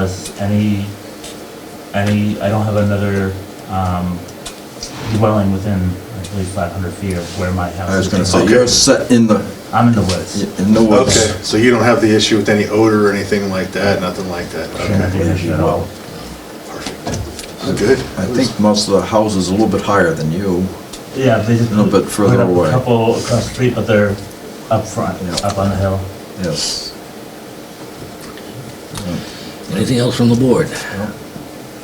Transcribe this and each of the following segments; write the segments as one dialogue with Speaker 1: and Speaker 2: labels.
Speaker 1: As any, any, I don't have another, um, dwelling within at least five hundred feet of where my house is.
Speaker 2: I was gonna say,
Speaker 3: Okay.
Speaker 2: you're set in the,
Speaker 1: I'm in the woods.
Speaker 2: in the woods.
Speaker 3: Okay, so you don't have the issue with any odor or anything like that, nothing like that?
Speaker 1: Shouldn't have
Speaker 3: Okay,
Speaker 1: an issue at all.
Speaker 3: perfect. Good.
Speaker 2: I think most of the houses are a little bit higher than you.
Speaker 1: Yeah, they just.
Speaker 2: A little bit further
Speaker 1: put up
Speaker 2: away.
Speaker 1: A couple across the street, but they're up front,
Speaker 2: Yeah.
Speaker 1: up on the hill.
Speaker 2: Yes.
Speaker 4: Anything else from the board?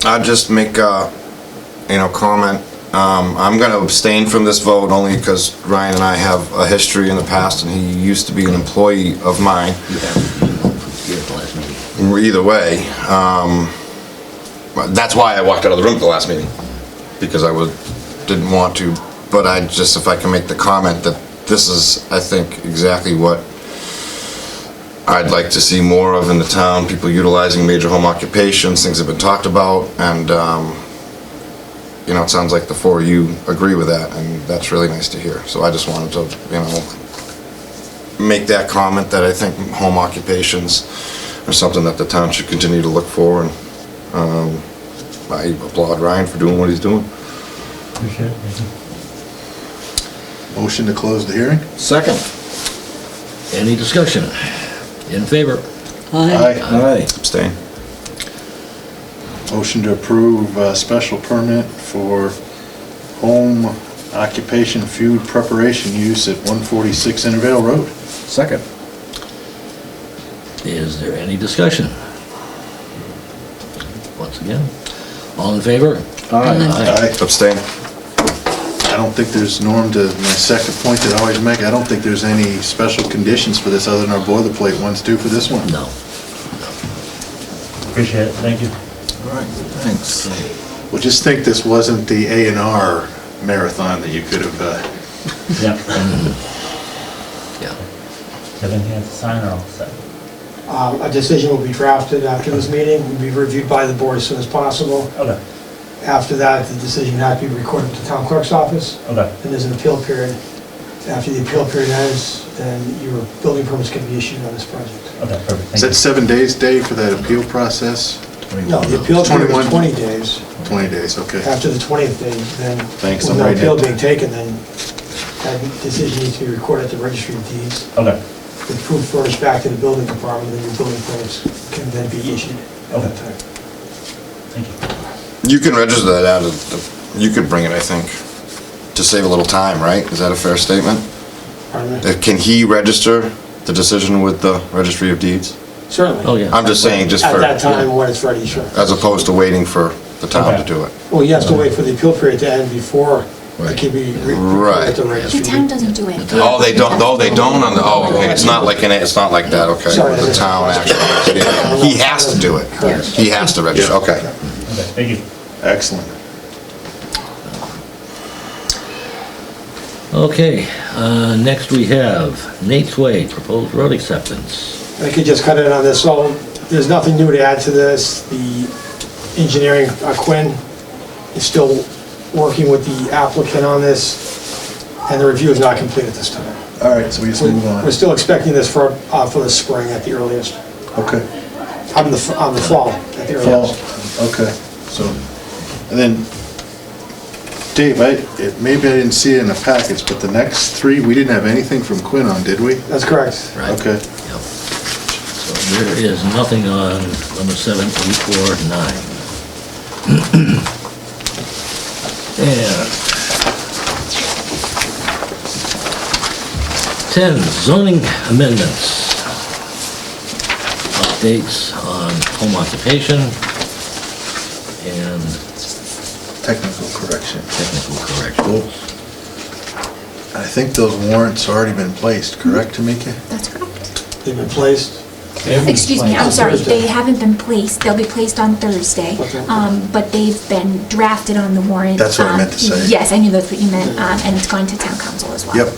Speaker 5: I'll just make a, you know, comment. Um, I'm gonna abstain from this vote only because Ryan and I have a history in the past and he used to be an employee of mine.
Speaker 4: You have, you you have the last meeting.
Speaker 5: Either way, um, but that's why I walked out of the room at the last meeting, because I was, didn't want to. But I just, if I can make the comment that this is, I think, exactly what I'd like to see more of in the town, people utilizing major home occupations, things have been talked about, and, um, you know, it sounds like the four of you agree with that, and that's really nice to hear. So I just wanted to, you know, make that comment that I think home occupations are something that the town should continue to look for, and um, I applaud Ryan for doing what he's doing.
Speaker 1: Appreciate it. Thank you.
Speaker 3: Motion to close the hearing?
Speaker 2: Second.
Speaker 4: Any discussion? In favor?
Speaker 3: Aye.
Speaker 6: Uh,
Speaker 2: Aye.
Speaker 5: Abstain.
Speaker 3: Motion to approve uh special permit for home occupation food preparation use at 146 Intervale Road.
Speaker 2: Second.
Speaker 4: Is there any discussion? Once again, all in favor?
Speaker 3: Aye.
Speaker 5: Abstain.
Speaker 3: I don't think there's, Norm, to my second point that I always make, I don't think there's any special conditions for this other than our boilerplate ones do for this one.
Speaker 4: No.
Speaker 1: Appreciate it, thank you.
Speaker 2: All right, thanks.
Speaker 3: Well, just think this wasn't the A and R marathon that you could have, uh,
Speaker 1: Yep.
Speaker 4: Yeah.
Speaker 1: Have anything else to sign or all set?
Speaker 6: Um, A decision will be drafted after this meeting, will be reviewed by the board as soon as possible.
Speaker 1: Okay,
Speaker 6: After that, the decision has to be recorded to town clerk's office,
Speaker 1: okay,
Speaker 6: and there's an appeal period. After the appeal period ends, then your building permits can be issued on this project.
Speaker 1: okay, perfect,
Speaker 3: Is
Speaker 1: thank you.
Speaker 3: that seven days, Dave, for that appeal process?
Speaker 6: No, the appeal period
Speaker 3: 21.
Speaker 6: is 20 days.
Speaker 3: 20 days, okay.
Speaker 6: After the 20th day, then,
Speaker 3: Thanks,
Speaker 6: with
Speaker 3: I'm
Speaker 6: no
Speaker 3: writing
Speaker 6: appeal
Speaker 3: it.
Speaker 6: being taken, then that decision needs to be recorded at the registry of deeds.
Speaker 1: Okay,
Speaker 6: with proof furnished back to the building department, then your building permits can then be issued at that time.
Speaker 1: thank you.
Speaker 5: You can register that out of, the- you could bring it, I think, to save a little time, right? Is that a fair statement?
Speaker 6: Pardon me?
Speaker 5: Uh, Can he register the decision with the Registry of Deeds?
Speaker 6: Certainly.
Speaker 4: Oh, yeah.
Speaker 5: I'm just saying, just
Speaker 6: At
Speaker 5: for,
Speaker 6: that time, when it's ready, sure.
Speaker 5: as opposed to waiting for the town to do it.
Speaker 6: Well, you have to wait for the appeal period to end before
Speaker 2: Right.
Speaker 6: it can be re-
Speaker 5: Right.
Speaker 6: recorded at the
Speaker 7: The
Speaker 6: registry.
Speaker 7: town doesn't do it.
Speaker 5: Oh, they don't, oh, they don't on the, oh, okay, it's not like, an it's not like that, okay.
Speaker 6: Sorry.
Speaker 5: The town actually, yeah. he has to do it.
Speaker 6: Correct.
Speaker 5: He has to register,
Speaker 3: Yeah.
Speaker 5: okay.
Speaker 1: Okay, thank you.
Speaker 3: Excellent.
Speaker 4: Okay, uh, next we have Nate's Way, proposed road acceptance.
Speaker 6: I could just cut in on this, so there's nothing new to add to this. The engineering, uh, Quinn, is still working with the applicant on this, and the review is not complete at this time.
Speaker 3: All right, so we just move on.
Speaker 6: We're still expecting this for, uh, for the spring at the earliest,
Speaker 3: Okay,
Speaker 6: on the, on the fall at the
Speaker 3: fall,
Speaker 6: earliest.
Speaker 3: okay, so, and then, Dave, I, it- maybe I didn't see it in the packets, but the next three, we didn't have anything from Quinn on, did we?
Speaker 6: That's correct.
Speaker 4: Right.
Speaker 3: Okay,
Speaker 4: Yep. So there is nothing on number seven, eight, four, nine. And ten, zoning amendments. Updates on home occupation and
Speaker 3: technical correction.
Speaker 4: technical corrections.
Speaker 3: I think those warrants already been placed, correct, Tamika?
Speaker 7: That's correct.
Speaker 6: They've been placed.
Speaker 7: Excuse me, I'm
Speaker 6: placed.
Speaker 7: sorry,
Speaker 6: Thursday.
Speaker 7: they haven't been placed, they'll be placed on Thursday,
Speaker 6: Okay.
Speaker 7: um, but they've been drafted on the warrant.
Speaker 3: That's what I
Speaker 7: um,
Speaker 3: meant to say.
Speaker 7: Yes, I knew that's what you meant, um, and it's gone to town council as well.
Speaker 3: Yep.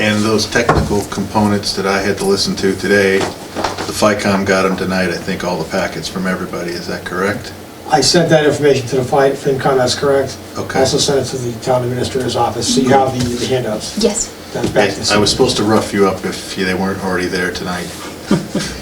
Speaker 3: And those technical components that I had to listen to today, the FICOM got them tonight, I think, all the packets from everybody, is that correct?
Speaker 6: I sent that information to the Fin- FinCon, that's correct.
Speaker 3: Okay.
Speaker 6: Also sent it to the town administrator's office, so you have the the handouts.
Speaker 7: Yes,
Speaker 6: That's back to the
Speaker 3: I was
Speaker 6: city.
Speaker 3: supposed to rough you up if you- they weren't already there tonight.